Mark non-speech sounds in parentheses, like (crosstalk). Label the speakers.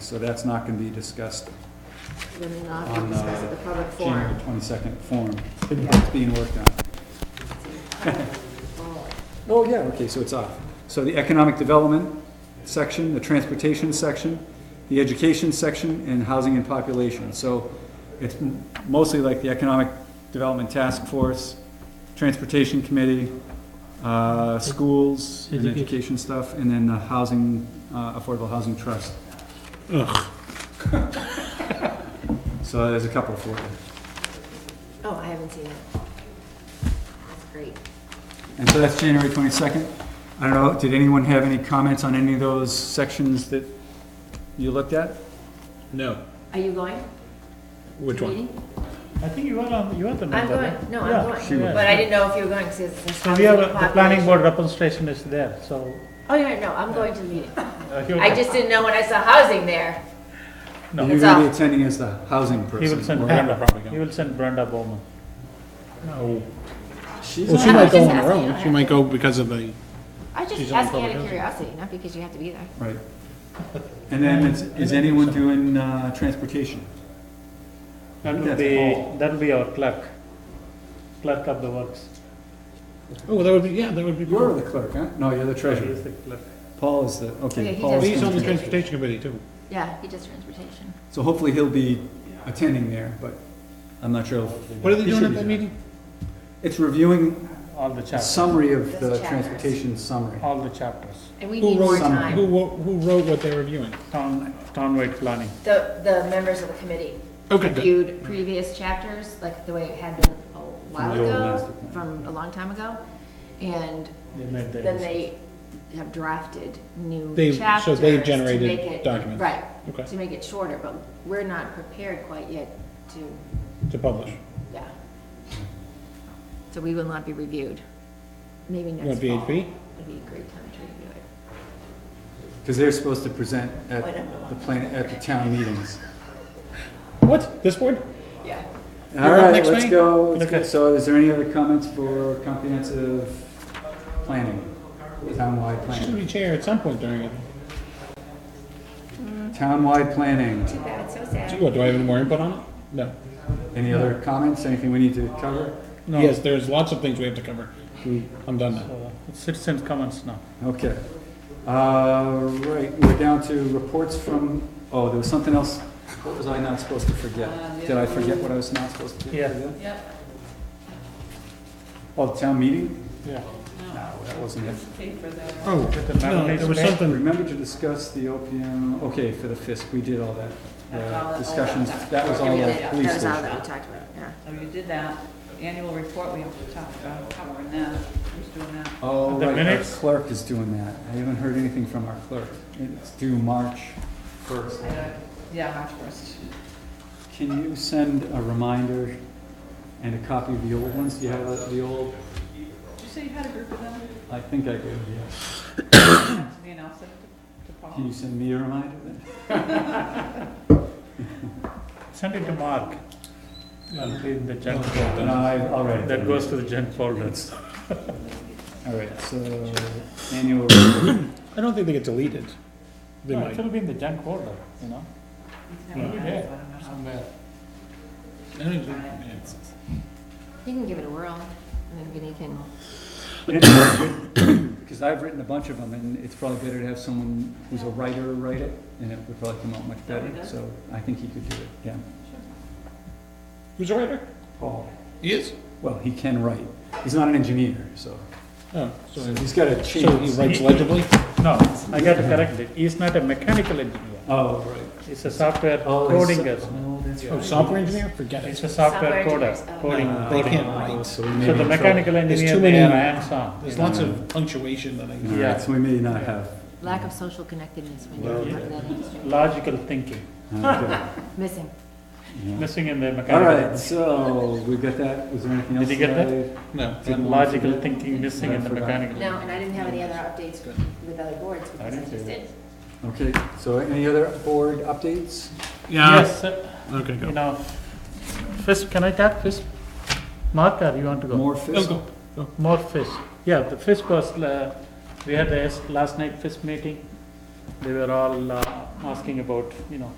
Speaker 1: so that's not gonna be discussed
Speaker 2: Then we'll not
Speaker 1: On,
Speaker 2: be discussed
Speaker 1: uh,
Speaker 2: at the public
Speaker 1: January
Speaker 2: forum.
Speaker 1: twenty-second forum. It's being worked
Speaker 2: (laughs)
Speaker 1: on. Oh, yeah, okay, so it's off. So the economic development section, the transportation section, the education section, and housing and population. So it's m- mostly like the economic development task force, transportation committee, uh, schools and
Speaker 3: Education.
Speaker 1: education stuff, and then the housing, uh, affordable housing trust. (laughs) So there's a couple for you.
Speaker 2: Oh, I haven't seen it. That's great.
Speaker 1: And so that's January 22nd. I don't know, did anyone have any comments on any of those sections that you looked at?
Speaker 4: No.
Speaker 2: Are you going?
Speaker 4: Which one?
Speaker 2: Meeting?
Speaker 3: I think you are on, you are the
Speaker 2: I'm
Speaker 3: member. right?
Speaker 2: going, no,
Speaker 3: Yeah,
Speaker 2: I'm
Speaker 3: she
Speaker 2: going,
Speaker 3: was.
Speaker 2: but I didn't know if you were going, because it's.
Speaker 3: So we have, a- the planning board representation is there, so.
Speaker 2: Oh, yeah, no, I'm going to the meeting.
Speaker 3: uh, he will-
Speaker 2: I just didn't know when I saw housing there.
Speaker 3: No.
Speaker 1: You're
Speaker 2: It's
Speaker 1: going to be
Speaker 2: off.
Speaker 1: attending as the housing person.
Speaker 3: He will send
Speaker 1: or-
Speaker 3: Brenda,
Speaker 4: probably go.
Speaker 3: he will send Brenda Bowman.
Speaker 4: No.
Speaker 1: She's
Speaker 4: Well,
Speaker 1: not-
Speaker 4: she
Speaker 2: I'm
Speaker 4: might go
Speaker 2: just
Speaker 4: on her
Speaker 2: asking, I
Speaker 4: own. She
Speaker 2: don't
Speaker 4: might
Speaker 2: know.
Speaker 4: go because of the,
Speaker 2: I just
Speaker 4: She's on
Speaker 2: asked out
Speaker 4: public
Speaker 2: of
Speaker 4: housing.
Speaker 2: curiosity, not because you have to be there.
Speaker 1: Right. And then is, is anyone doing uh, transportation?
Speaker 3: That will
Speaker 1: That's
Speaker 3: be,
Speaker 1: all.
Speaker 3: that will be our clerk, clerk of the works.
Speaker 4: oh, that would be, yeah, that would be.
Speaker 1: You're
Speaker 4: cool.
Speaker 1: the clerk, huh? No, you're the
Speaker 3: He
Speaker 1: treasurer.
Speaker 3: is the clerk.
Speaker 1: Paul is the,
Speaker 2: Yeah,
Speaker 1: okay.
Speaker 2: he
Speaker 1: Paul's
Speaker 2: does.
Speaker 4: He's on the
Speaker 1: doing
Speaker 4: transportation committee too.
Speaker 2: Yeah, he does transportation.
Speaker 1: So hopefully he'll be attending there, but I'm not sure. if-
Speaker 4: What are they
Speaker 1: He
Speaker 4: doing
Speaker 1: should
Speaker 4: at
Speaker 1: be
Speaker 4: that meeting?
Speaker 1: It's reviewing
Speaker 3: All the
Speaker 1: a
Speaker 3: chapters,
Speaker 1: summary of
Speaker 2: Those
Speaker 1: the
Speaker 2: chapters.
Speaker 1: transportation summary.
Speaker 3: all the chapters,
Speaker 2: And we
Speaker 4: Who
Speaker 2: need more
Speaker 4: wrote,
Speaker 1: some-
Speaker 4: who,
Speaker 2: time.
Speaker 4: wo- who wrote what they're reviewing?
Speaker 3: town, townwide planning.
Speaker 2: The, the members of the committee
Speaker 4: Okay, good.
Speaker 2: reviewed previous chapters, like the way it had been a while
Speaker 1: From the old
Speaker 2: ago,
Speaker 1: master plan.
Speaker 2: from a long time ago. And
Speaker 3: They made their
Speaker 2: then
Speaker 3: decision.
Speaker 2: they have drafted new
Speaker 4: They- so
Speaker 2: chapters.
Speaker 4: they've
Speaker 2: to
Speaker 4: generated
Speaker 2: make it-
Speaker 4: documents.
Speaker 2: Right,
Speaker 4: Okay.
Speaker 2: to make it shorter, but we're not prepared quite yet to,
Speaker 4: To publish.
Speaker 2: yeah. So we will not be reviewed. Maybe
Speaker 4: want
Speaker 2: next fall.
Speaker 4: VHP?
Speaker 2: Would be a great time to review it.
Speaker 1: Because they're supposed to present at
Speaker 2: Wait, I'm-
Speaker 1: the plan, at the town meetings.
Speaker 4: What? This board?
Speaker 2: Yeah.
Speaker 1: All
Speaker 4: You're up
Speaker 1: right,
Speaker 4: next,
Speaker 1: let's
Speaker 4: Wayne?
Speaker 1: go. Let's
Speaker 3: Okay.
Speaker 1: go. So is there any other comments for comprehensive planning? Townwide
Speaker 4: Should
Speaker 1: planning.
Speaker 4: be chair at some point during it.
Speaker 1: Townwide planning.
Speaker 2: Too bad, so sad.
Speaker 4: Do what, do I have any more input on it? No.
Speaker 1: Any other comments? Anything we need to cover?
Speaker 3: No.
Speaker 4: Yes, there's lots of things we have to cover. I'm done now.
Speaker 3: So, Citizens comments now.
Speaker 1: Okay. Uh, right, we're down to reports from, oh, there was something else. What was I not supposed to forget? Did I forget what I was not supposed to
Speaker 3: Yeah.
Speaker 1: forget? Oh, town meeting?
Speaker 3: Yeah.
Speaker 1: No, that wasn't it.
Speaker 4: Oh, no, there was something,
Speaker 1: Remember to discuss the OPM, okay, for the FISC, we did all that. The discussions, that was all the
Speaker 2: That
Speaker 1: police
Speaker 2: was all
Speaker 1: station.
Speaker 2: that we talked about, yeah.
Speaker 5: So oh, you did that, the annual report, we have to talk about covering that, who's doing that?
Speaker 1: Oh, right,
Speaker 3: The
Speaker 1: our
Speaker 3: minutes?
Speaker 1: clerk is doing that. I haven't heard anything from our clerk. It's due March first.
Speaker 5: I don't- Yeah, March first.
Speaker 1: Can you send a reminder and a copy of the old ones? Do you have the- the old?
Speaker 5: Did you say you had a group of them?
Speaker 1: I think I do, yes.
Speaker 5: To me, and I'll send it to to
Speaker 1: Can you
Speaker 5: Paul.
Speaker 1: send me a reminder then?
Speaker 3: Send it to Mark. That'll be in the junk
Speaker 1: No,
Speaker 3: folder.
Speaker 1: I, I'll write it.
Speaker 3: That
Speaker 1: down.
Speaker 3: goes to the junk folder.
Speaker 1: All right, so annual report.
Speaker 4: I don't think they get deleted. They
Speaker 3: No,
Speaker 4: might.
Speaker 3: It'll be in the junk folder, you know?
Speaker 5: He's having
Speaker 3: Yeah.
Speaker 5: that, so I don't know how-
Speaker 4: I don't think- yeah.
Speaker 2: You can give it a whirl, and then you can,
Speaker 1: Because I've written a bunch of them, and it's probably better to have someone who's a writer write it, and it would probably come out much better, so I think he could do it, yeah.
Speaker 4: Who's a writer?
Speaker 1: Paul,
Speaker 4: He is?
Speaker 1: well, he can write, he's not an engineer, so,
Speaker 4: Oh, so
Speaker 1: so he's got a chance.
Speaker 4: so he writes legibly?
Speaker 3: No, I got to correct it. He's not a mechanical engineer.
Speaker 1: Oh, right.
Speaker 3: He's a software
Speaker 1: Oh, he's-
Speaker 3: coding.
Speaker 1: Oh, that's
Speaker 4: Oh,
Speaker 1: right.
Speaker 4: software engineer? Forget
Speaker 3: He's
Speaker 4: it.
Speaker 3: a software
Speaker 2: Software engineers,
Speaker 3: coder,
Speaker 2: oh.
Speaker 3: coding.
Speaker 1: Uh,
Speaker 4: They can't write.
Speaker 1: So we may
Speaker 3: So
Speaker 1: be
Speaker 3: the
Speaker 1: in
Speaker 3: mechanical
Speaker 4: There's
Speaker 3: engineer,
Speaker 4: too
Speaker 3: they are
Speaker 4: many-
Speaker 3: hands-on.
Speaker 4: There's lots of punctuation that
Speaker 1: trouble.
Speaker 4: I,
Speaker 1: All
Speaker 3: yeah.
Speaker 1: right, uh, So we may not have,
Speaker 2: lack of social connectedness when you're part of that industry,
Speaker 3: Logical thinking,
Speaker 1: okay.
Speaker 3: (laughs)
Speaker 2: missing.
Speaker 1: uh, Yeah.
Speaker 3: missing in the
Speaker 1: All
Speaker 3: mechanical.
Speaker 1: right, so we got that, was there anything else?
Speaker 3: Did you get
Speaker 4: no.
Speaker 1: Didn't want to
Speaker 3: Logical
Speaker 1: forget.
Speaker 3: thinking missing in the
Speaker 1: I forgot.
Speaker 3: mechanical.
Speaker 2: No, and I didn't have any other updates with other boards, because I
Speaker 3: didn't
Speaker 2: just
Speaker 3: see
Speaker 2: did.
Speaker 1: Okay, so any other board updates?
Speaker 4: Yeah,
Speaker 3: Yes, uh,
Speaker 4: okay,
Speaker 3: you
Speaker 4: go.
Speaker 3: know, FISP, can I talk FISP? Mark, or you want to go?
Speaker 1: More
Speaker 4: No,
Speaker 1: fiscal?
Speaker 4: go.
Speaker 3: More FISP. Yeah, the FISP was, uh, we had the last night FISP meeting. they were all uh, asking about, you know,